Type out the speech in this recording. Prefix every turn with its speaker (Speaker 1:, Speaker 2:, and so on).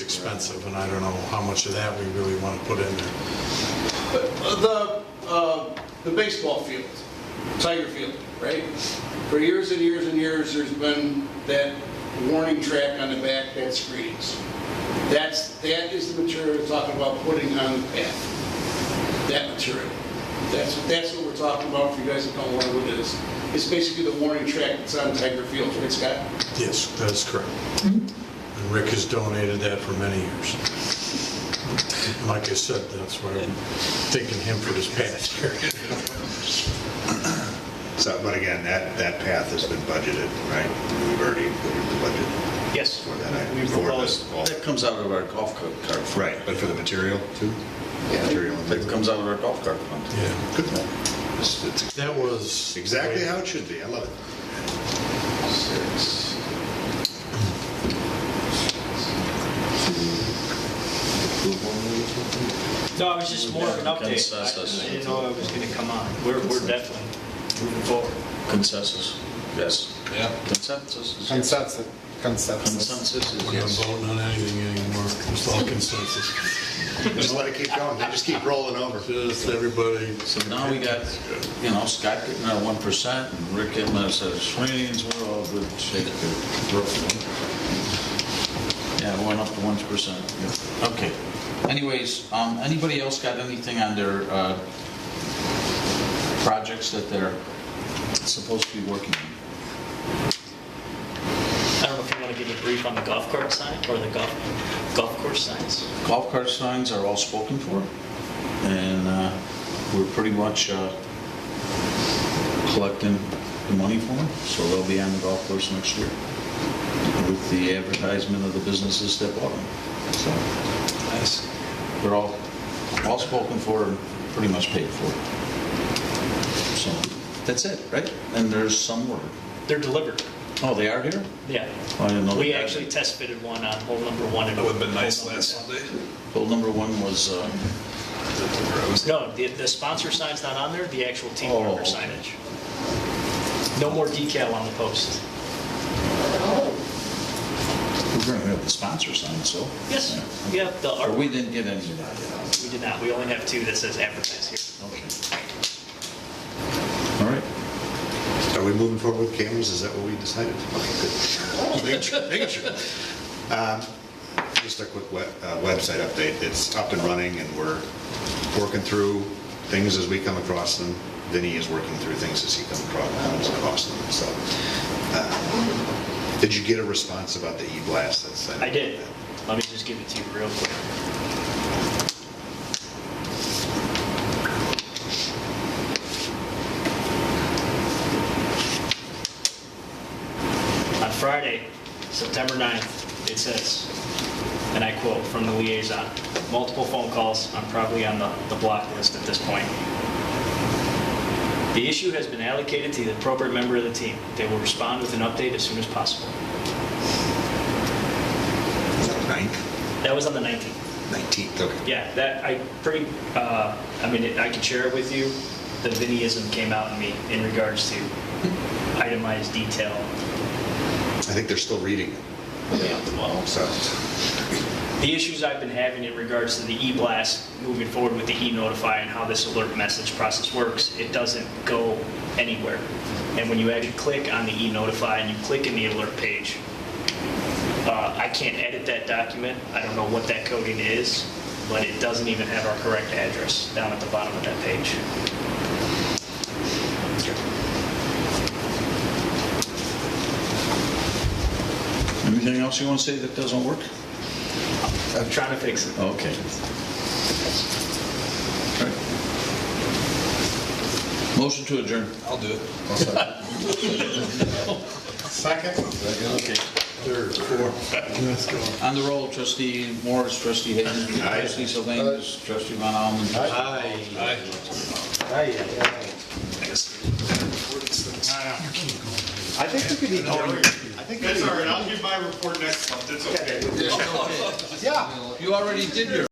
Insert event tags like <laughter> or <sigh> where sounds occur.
Speaker 1: expensive, and I don't know how much of that we really want to put in there.
Speaker 2: The, uh, the baseball field, Tiger Field, right? For years and years and years, there's been that warning track on the back that screens. That's, that is the material we're talking about putting on the path, that material. That's, that's what we're talking about, for you guys that don't know what it is. It's basically the warning track that's on Tiger Field, right, Scott?
Speaker 1: Yes, that's correct. And Rick has donated that for many years. Like I said, that's why I'm thanking him for his past here.
Speaker 3: So, but again, that, that path has been budgeted, right? We've already included the budget
Speaker 4: Yes.
Speaker 3: for that.
Speaker 4: We
Speaker 3: for the-
Speaker 4: proposed,
Speaker 3: all-
Speaker 5: That comes out of our golf cart cart fund.
Speaker 3: Right, but for the material too? Material and
Speaker 5: That comes out of our golf cart fund.
Speaker 1: Yeah,
Speaker 3: Good. It's- it's
Speaker 1: that was.
Speaker 3: Exactly how it should be. I love it.
Speaker 2: Six.
Speaker 4: No, I was just more of an update.
Speaker 5: Consensus.
Speaker 4: I didn't know I was going to come on. We're, we're definitely moving forward.
Speaker 5: Consensus, yes.
Speaker 2: Yeah.
Speaker 5: Consensus is yes.
Speaker 6: Consensus. Consensus.
Speaker 5: Consensus is
Speaker 1: We're not
Speaker 5: yes.
Speaker 1: voting on anything anymore, it's all consensus.
Speaker 3: Just let it keep going. They just keep rolling over.
Speaker 1: <laughs> Just everybody,
Speaker 5: So now we got, you know, Scott getting our one percent and Rick getting us our swings, we're all good shape. Yeah, we went up to one percent. Okay. Anyways, um, anybody else got anything on their, uh, projects that they're supposed to be working on?
Speaker 4: I don't know if you want to give a brief on the golf cart sign or the golf, golf course signs.
Speaker 5: golf cart signs are all spoken for, and uh, we're pretty much uh, collecting the money for them, so they'll be on the golf course next year with the advertisement of the businesses that bought them. So
Speaker 4: Nice.
Speaker 5: they're all, all spoken for and pretty much paid for. So that's it, right? And there's some word.
Speaker 4: They're delivered.
Speaker 5: Oh, they are here?
Speaker 4: Yeah.
Speaker 5: I didn't know
Speaker 4: We
Speaker 5: that.
Speaker 4: actually test fitted one on hole number one. and
Speaker 7: That would have been
Speaker 4: hole
Speaker 7: nice
Speaker 4: number
Speaker 7: last
Speaker 4: one.
Speaker 7: Sunday.
Speaker 5: Bill number one was, uh,
Speaker 4: No, the, the sponsor sign's not on there, the actual team
Speaker 5: Oh,
Speaker 4: member
Speaker 5: okay.
Speaker 4: signage. No more decal on the post.
Speaker 5: we're going to have the sponsor sign, so.
Speaker 4: Yes,
Speaker 5: Yeah.
Speaker 4: yeah, the
Speaker 5: Or
Speaker 4: art,
Speaker 5: we
Speaker 4: we
Speaker 5: didn't get any of that.
Speaker 4: did not, we only have two that says advertise here.
Speaker 5: Okay. All right.
Speaker 3: Are we moving forward with cameras? Is that what we decided?
Speaker 4: Oh.
Speaker 3: Okay, good. Making sure, making sure. Um, Just a quick we- uh, website update. It's up and running and we're working through things as we come across them. Vinny is working through things as he comes acro- comes across them, so. uh, Did you get a response about the e-blast that's sent?
Speaker 4: I did, let me just give it to you real quick. On Friday, September 9th, it says, and I quote from the liaison, multiple phone calls, I'm probably on the, the block list at this point. The issue has been allocated to the appropriate member of the team. They will respond with an update as soon as possible.
Speaker 3: Is that Ninth,
Speaker 4: That was on the 19th.
Speaker 3: 19th, okay.
Speaker 4: Yeah, that, I pretty, uh, I mean, I can share it with you. The Vinnyism came out in me in regards to itemized detail.
Speaker 3: I think they're still reading it,
Speaker 4: Well,
Speaker 3: so.
Speaker 4: The issues I've been having in regards to the e-blast, moving forward with the e-notify and how this alert message process works, it doesn't go anywhere. And when you actually click on the e-notify and you click in the alert page, uh, I can't edit that document. I don't know what that coding is, but it doesn't even have our correct address down at the bottom of that page.
Speaker 5: Anything else you want to say that doesn't work?
Speaker 4: I'm trying to fix it.
Speaker 5: Okay. Motion to adjourn.
Speaker 7: I'll do it.
Speaker 6: Second.
Speaker 5: Okay.
Speaker 1: third, fourth, let's go.
Speaker 5: On the roll, trustee Morris, trustee Hayden, trustee Salinas, trustee Von Allen.
Speaker 1: Aye.
Speaker 6: I think we could be going. I think we could.
Speaker 7: I'll give my report next month, it's okay.
Speaker 6: Yeah.
Speaker 5: You already did your